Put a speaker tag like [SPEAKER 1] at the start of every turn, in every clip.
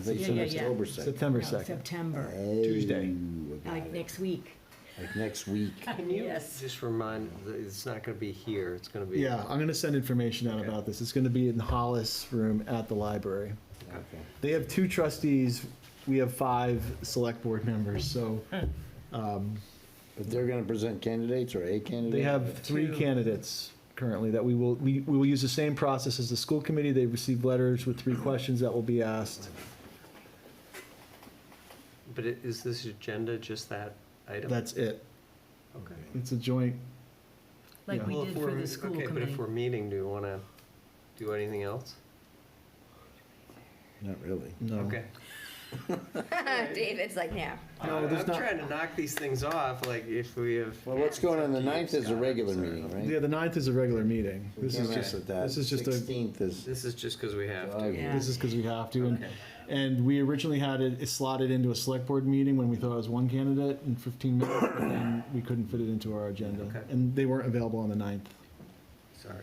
[SPEAKER 1] think
[SPEAKER 2] Yeah,
[SPEAKER 1] it's in
[SPEAKER 2] yeah, yeah.
[SPEAKER 1] October second.
[SPEAKER 2] No,
[SPEAKER 3] September second.
[SPEAKER 2] September,
[SPEAKER 1] Tuesday.
[SPEAKER 2] like next week.
[SPEAKER 1] Like next week.
[SPEAKER 4] Can you
[SPEAKER 2] Yes.
[SPEAKER 4] just remind, it's not going to be here, it's going to be.
[SPEAKER 3] Yeah, I'm gonna send information out
[SPEAKER 4] Okay.
[SPEAKER 3] about this. It's gonna be in the Hollis room at the library.
[SPEAKER 1] Okay.
[SPEAKER 3] They have two trustees, we have five select board members, so
[SPEAKER 1] But they're gonna present candidates or a candidate?
[SPEAKER 3] they have three candidates currently that we will, we, we will use the same process as the school committee. They receive letters with three questions that will be asked.
[SPEAKER 4] But i- is this agenda just that item?
[SPEAKER 3] That's it.
[SPEAKER 4] Okay.
[SPEAKER 3] It's a joint,
[SPEAKER 2] Like we
[SPEAKER 4] Well,
[SPEAKER 2] did
[SPEAKER 4] if
[SPEAKER 2] for
[SPEAKER 4] we're-
[SPEAKER 2] the school
[SPEAKER 4] Okay, but
[SPEAKER 2] committee.
[SPEAKER 4] if we're meeting, do you want to do anything else?
[SPEAKER 1] Not really.
[SPEAKER 3] no.
[SPEAKER 4] Okay.
[SPEAKER 5] David's like, yeah.
[SPEAKER 3] No, there's
[SPEAKER 4] I'm
[SPEAKER 3] not-
[SPEAKER 4] trying to knock these things off, like if we have.
[SPEAKER 1] Well, what's going on the ninth is a regular meeting,
[SPEAKER 3] Yeah,
[SPEAKER 1] right?
[SPEAKER 3] the ninth is a regular meeting.
[SPEAKER 1] We
[SPEAKER 3] This is
[SPEAKER 1] can't mess
[SPEAKER 3] just,
[SPEAKER 1] with that.
[SPEAKER 3] this is just a,
[SPEAKER 1] Sixteenth is,
[SPEAKER 4] This is just because we have
[SPEAKER 1] Oh,
[SPEAKER 4] to.
[SPEAKER 1] yeah.
[SPEAKER 3] This is because we have to, and, and we originally had it slotted into a select board meeting when we thought it was one candidate in fifteen minutes, but then we couldn't fit it into our agenda.
[SPEAKER 4] Okay.
[SPEAKER 3] And they weren't available on the ninth.
[SPEAKER 4] Sorry.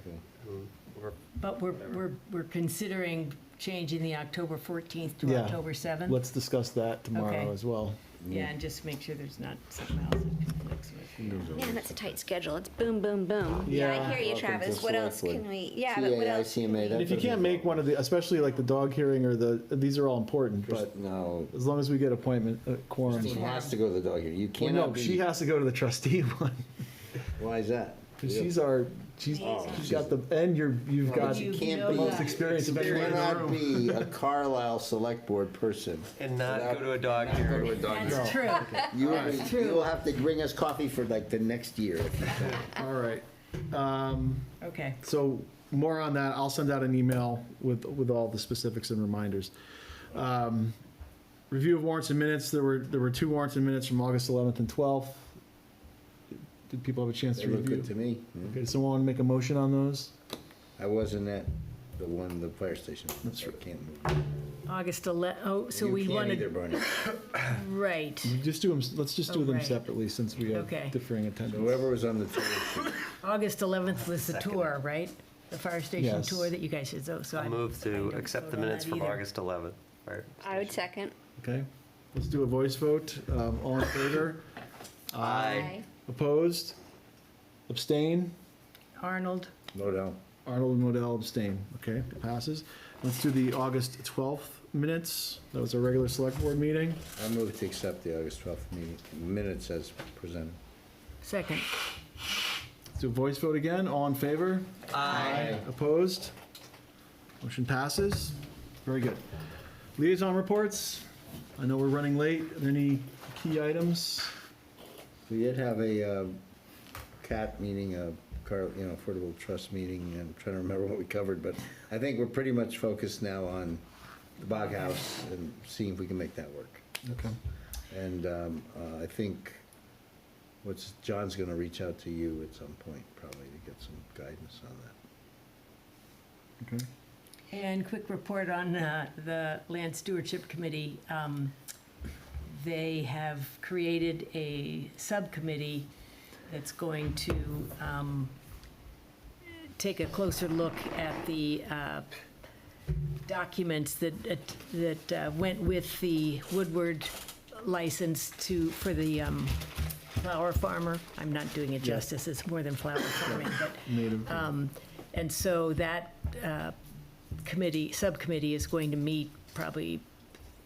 [SPEAKER 4] Um, we're-
[SPEAKER 2] But we're, we're, we're considering changing the October 14th to
[SPEAKER 3] Yeah.
[SPEAKER 2] October 7th.
[SPEAKER 3] Let's discuss that tomorrow
[SPEAKER 2] Okay.
[SPEAKER 3] as well.
[SPEAKER 2] Yeah, and just make sure there's not something else that conflicts with.
[SPEAKER 5] Man, that's a tight schedule. It's boom, boom, boom. Yeah,
[SPEAKER 3] Yeah.
[SPEAKER 5] I hear you,
[SPEAKER 1] Welcome
[SPEAKER 5] Travis.
[SPEAKER 1] to
[SPEAKER 5] What else
[SPEAKER 1] Select Board.
[SPEAKER 5] can we? Yeah, but what else? can
[SPEAKER 1] TAICMA,
[SPEAKER 5] we-
[SPEAKER 3] And if you can't make one of the, especially like the dog hearing or the, these are all important, but
[SPEAKER 1] no,
[SPEAKER 3] as long as we get appointment, uh, quorum.
[SPEAKER 1] Christine has to go to the dog here. You
[SPEAKER 3] Well, no,
[SPEAKER 1] cannot
[SPEAKER 3] she
[SPEAKER 1] be,
[SPEAKER 3] has to go to the trustee one,
[SPEAKER 1] why is that?
[SPEAKER 3] 'cause she's our, she's,
[SPEAKER 5] Oh,
[SPEAKER 3] she's got the, and you're, you've
[SPEAKER 1] But
[SPEAKER 3] got
[SPEAKER 1] you
[SPEAKER 2] You
[SPEAKER 1] can't
[SPEAKER 2] know
[SPEAKER 1] be-
[SPEAKER 2] that.
[SPEAKER 3] experience of
[SPEAKER 1] You
[SPEAKER 3] everyone in the
[SPEAKER 1] cannot
[SPEAKER 3] room.
[SPEAKER 1] be a Carlisle Select Board person.
[SPEAKER 4] And not go
[SPEAKER 1] without-
[SPEAKER 4] to a dog
[SPEAKER 1] not go to
[SPEAKER 4] hearing.
[SPEAKER 1] a dog
[SPEAKER 2] That's
[SPEAKER 1] hearing.
[SPEAKER 2] true.
[SPEAKER 1] You will be- you will have to bring us coffee for like the next year.
[SPEAKER 3] All right. Um,
[SPEAKER 2] Okay.
[SPEAKER 3] So more on that, I'll send out an email with, with all the specifics and reminders. Um, Review of warrants and minutes, there were, there were two warrants and minutes from August 11th and 12th. Did people have a chance
[SPEAKER 1] They
[SPEAKER 3] to
[SPEAKER 1] look good to
[SPEAKER 3] review?
[SPEAKER 1] me. Hmm.
[SPEAKER 3] Okay, does someone want to make a motion on those?
[SPEAKER 1] I wasn't at the one, the fire station.
[SPEAKER 3] That's
[SPEAKER 1] so I
[SPEAKER 3] right.
[SPEAKER 1] can't move.
[SPEAKER 2] August 11, oh, so
[SPEAKER 1] You
[SPEAKER 2] we
[SPEAKER 1] can't
[SPEAKER 2] wanted.
[SPEAKER 1] either, Barney.
[SPEAKER 2] Right.
[SPEAKER 3] We Just do them, let's just do
[SPEAKER 2] Oh,
[SPEAKER 3] them
[SPEAKER 2] right.
[SPEAKER 3] separately since we have
[SPEAKER 2] Okay.
[SPEAKER 3] differing attendance.
[SPEAKER 1] Whoever was on the tour,
[SPEAKER 2] August 11th was the tour, right? The fire station
[SPEAKER 3] Yes.
[SPEAKER 2] tour that you guys did, so. so
[SPEAKER 4] I'll
[SPEAKER 2] I-
[SPEAKER 4] move
[SPEAKER 2] I
[SPEAKER 4] to
[SPEAKER 2] don't
[SPEAKER 4] accept the
[SPEAKER 2] vote on
[SPEAKER 4] minutes
[SPEAKER 2] that
[SPEAKER 4] from
[SPEAKER 2] either.
[SPEAKER 4] August 11th. Right.
[SPEAKER 5] I would second.
[SPEAKER 3] Okay, let's do a voice vote. Um, All in favor?
[SPEAKER 5] Aye.
[SPEAKER 3] Opposed? Abstain?
[SPEAKER 2] Arnold,
[SPEAKER 1] no doubt.
[SPEAKER 3] Arnold and Modell abstain. Okay, it passes. Let's do the August 12th minutes. That was a regular select board meeting.
[SPEAKER 1] I move to accept the August 12th meeting minutes as presented.
[SPEAKER 2] second.
[SPEAKER 3] Let's do a voice vote again. All in favor? Aye. Opposed? Motion passes. Very good. Liaison reports. I know we're running late. Are there any key items?
[SPEAKER 1] We did have a uh, cat meeting, a car, you know, affordable trust meeting, and I'm trying to remember what we covered, but I think we're pretty much focused now on the Bog House and seeing if we can make that work.
[SPEAKER 3] Okay.
[SPEAKER 1] And um, uh, I think, what's, John's gonna reach out to you at some point, probably, to get some guidance on that.
[SPEAKER 3] Okay.
[SPEAKER 2] And quick report on uh, the Land Stewardship Committee. Um, They have created a subcommittee that's going to um, take a closer look at the uh, documents that, that uh, went with the Woodward license to, for the um, flower farmer. I'm not doing it justice, it's more than flower farming, but, um,
[SPEAKER 3] Native.
[SPEAKER 2] and so that uh, committee, subcommittee is going to meet probably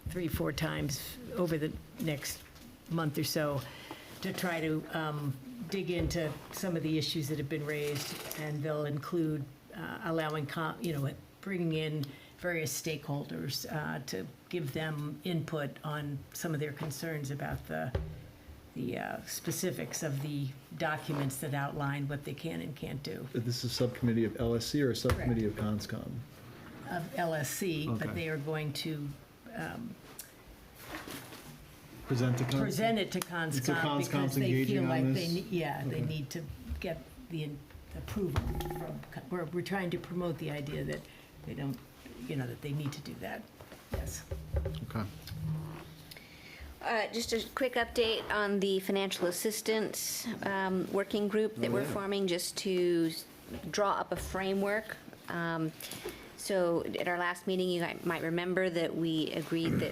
[SPEAKER 2] three, four times over the next month or so to try to um, dig into some of the issues that have been raised, and they'll include uh, allowing, co- you know, bringing in various stakeholders uh, to give them input on some of their concerns about the, the uh, specifics of the documents that outline what they can and can't do.
[SPEAKER 3] This is subcommittee of LSC or a subcommittee of CONSCOM?
[SPEAKER 2] of LSC,
[SPEAKER 3] Okay.
[SPEAKER 2] but they are going to
[SPEAKER 3] Present to CONSCOM?
[SPEAKER 2] present it to
[SPEAKER 3] So
[SPEAKER 2] CONSCOM
[SPEAKER 3] CONSCOM's
[SPEAKER 2] because they
[SPEAKER 3] engaging
[SPEAKER 2] feel
[SPEAKER 3] on
[SPEAKER 2] like they,
[SPEAKER 3] this?
[SPEAKER 2] ne- yeah, they
[SPEAKER 3] Okay.
[SPEAKER 2] need to get the in- approval from, co- we're, we're trying to promote the idea that they don't, you know, that they need to do that. Yes.
[SPEAKER 3] Okay.
[SPEAKER 5] Uh, just a quick update on the financial assistance um, working group that we're forming just to s- draw up a framework. Um, so at our last meeting, you guy- might remember that we agreed that